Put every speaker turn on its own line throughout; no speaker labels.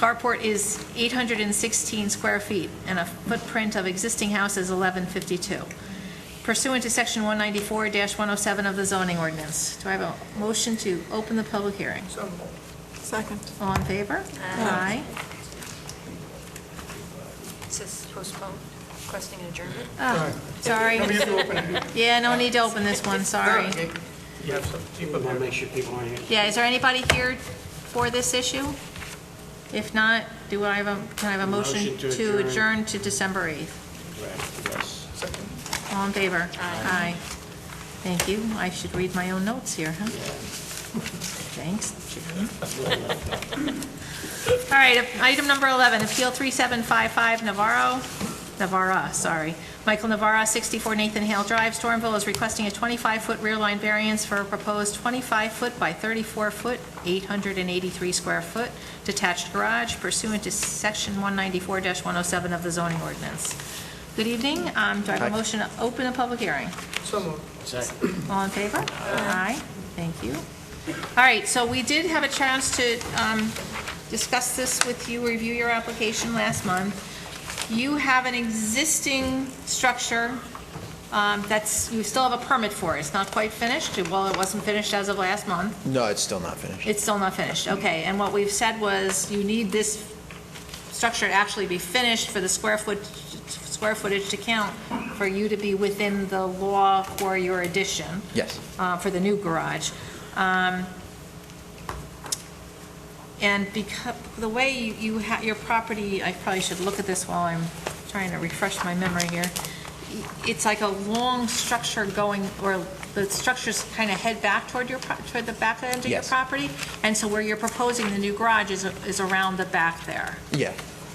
Carport is 816 square feet, and a footprint of existing house is 1152. Pursuant to Section 194-107 of the zoning ordinance, do I have a motion to open the public hearing?
Second.
All in favor? Aye.
It says postpone, requesting an adjournment.
Oh, Sorry.
No, you can open it.
Yeah, no need to open this one, sorry.
You have some, you put
I
that-
make sure people aren't here.
Yeah, is there anybody here for this issue? If not, do I have a, can I have a motion
Motion to
to
adjourn.
adjourn to December 8th?
Yes.
All in favor? Aye. Thank you. I should read my own notes here, huh? Thanks, Jim. All right, item number 11, Appeal 3755 Navarro, Navarra, sorry. Michael Navarra, 64 Nathan Hale Drive, Stormville, is requesting a 25-foot rear line variance for a proposed 25-foot by 34-foot, 883-square-foot detached garage pursuant to Section 194-107 of the zoning ordinance. Good evening. Um, Do I have a motion to open a public hearing?
So moved.
All in favor? Aye. Thank you. All right, so we did have a chance to um, discuss this with you, review your application last month. You have an existing structure um, that's, you still have a permit for. It's not quite finished. Well, it wasn't finished as of last month.
No, it's still not finished.
It's still not finished, okay. And what we've said was, you need this structure to actually be finished for the square foot, square footage to count, for you to be within the law for your addition,
Yes.
uh, for the new garage. Um, And because, the way you- you, ha- your property, I probably should look at this while I'm trying to refresh my memory here. It's like a long structure going, or the structures kind of head back toward your, pro- toward the back end of your
Yes.
property? And so where you're proposing the new garage is, is around the back there?
Yeah.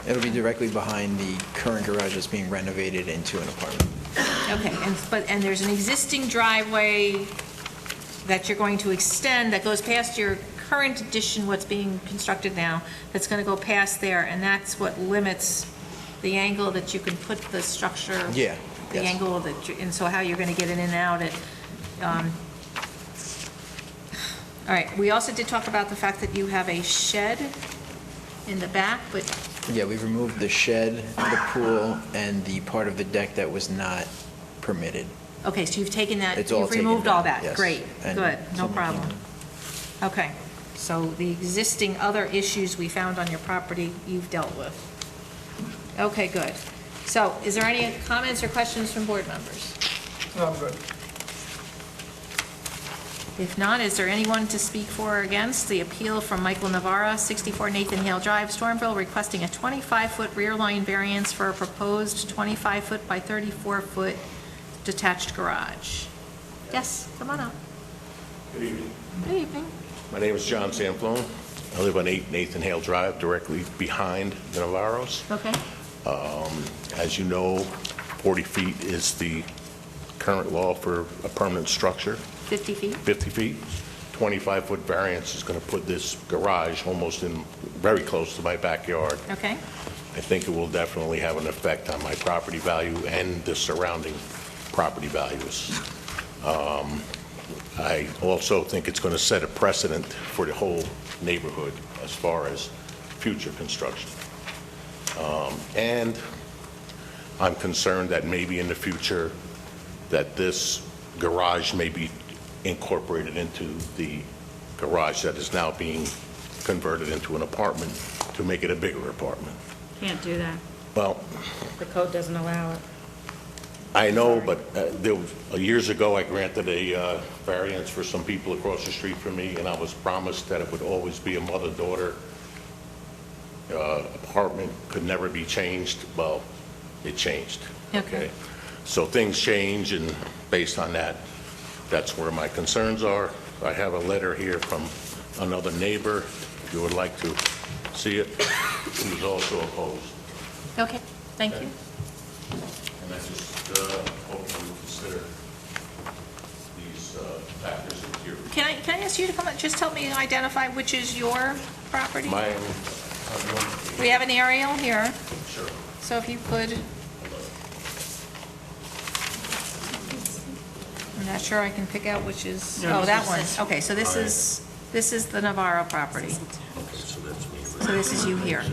It'll be directly behind the current garage that's being renovated into an apartment.
Okay, and, but, and there's an existing driveway that you're going to extend that goes past your current addition, what's being constructed now, that's gonna go past there, and that's what limits the angle that you can put the structure.
Yeah,
The
yes.
angle that, you- and so how you're gonna get in and out at, um, all right, we also did talk about the fact that you have a shed in the back, but
Yeah, we've removed the shed, the pool, and the part of the deck that was not permitted.
Okay, so you've taken that,
It's all
you've
taken
removed all
down,
that?
yes.
Great,
And
good, no
someone came
problem. Okay, so the existing other issues we found on your property, you've dealt with. Okay, good. So is there any comments or questions from board members?
No, I'm good.
If not, is there anyone to speak for or against the appeal from Michael Navarra, 64 Nathan Hale Drive, Stormville, requesting a 25-foot rear line variance for a proposed 25-foot by 34-foot detached garage? Yes, come on up.
Good evening.
Good evening.
My name is John Sanflone. I live on 8 Nathan Hale Drive, directly behind the Navarros.
Okay,
As you know, 40 feet is the current law for a permanent structure,
50 feet,
50 feet. 25-foot variance is going to put this garage almost in, very close to my backyard.
okay,
I think it will definitely have an effect on my property value and the surrounding property values. Um, I also think it's going to set a precedent for the whole neighborhood as far as future construction. Um, And I'm concerned that maybe in the future, that this garage may be incorporated into the garage that is now being converted into an apartment to make it a bigger apartment.
Can't do that.
Well,
The code doesn't allow it.
I know, but uh, there was, uh, years ago, I granted a uh, variance for some people across the street from me, and I was promised that it would always be a mother-daughter uh, apartment, could never be changed. Well, it changed.
Okay.
So things change, and based on that, that's where my concerns are. I have a letter here from another neighbor, if you would like to see it, who's also opposed.
okay, thank you.
And I just uh, hope you will consider these uh, factors in your...
Can I, can I ask you to come up, just help me identify which is your property?
Mine,
We have an aerial here,
sure.
so if you could. I'm not sure I can pick out which is, oh, that one. Okay, so this is, this is the Navarro property.
Okay, so that's me.
So this is you here.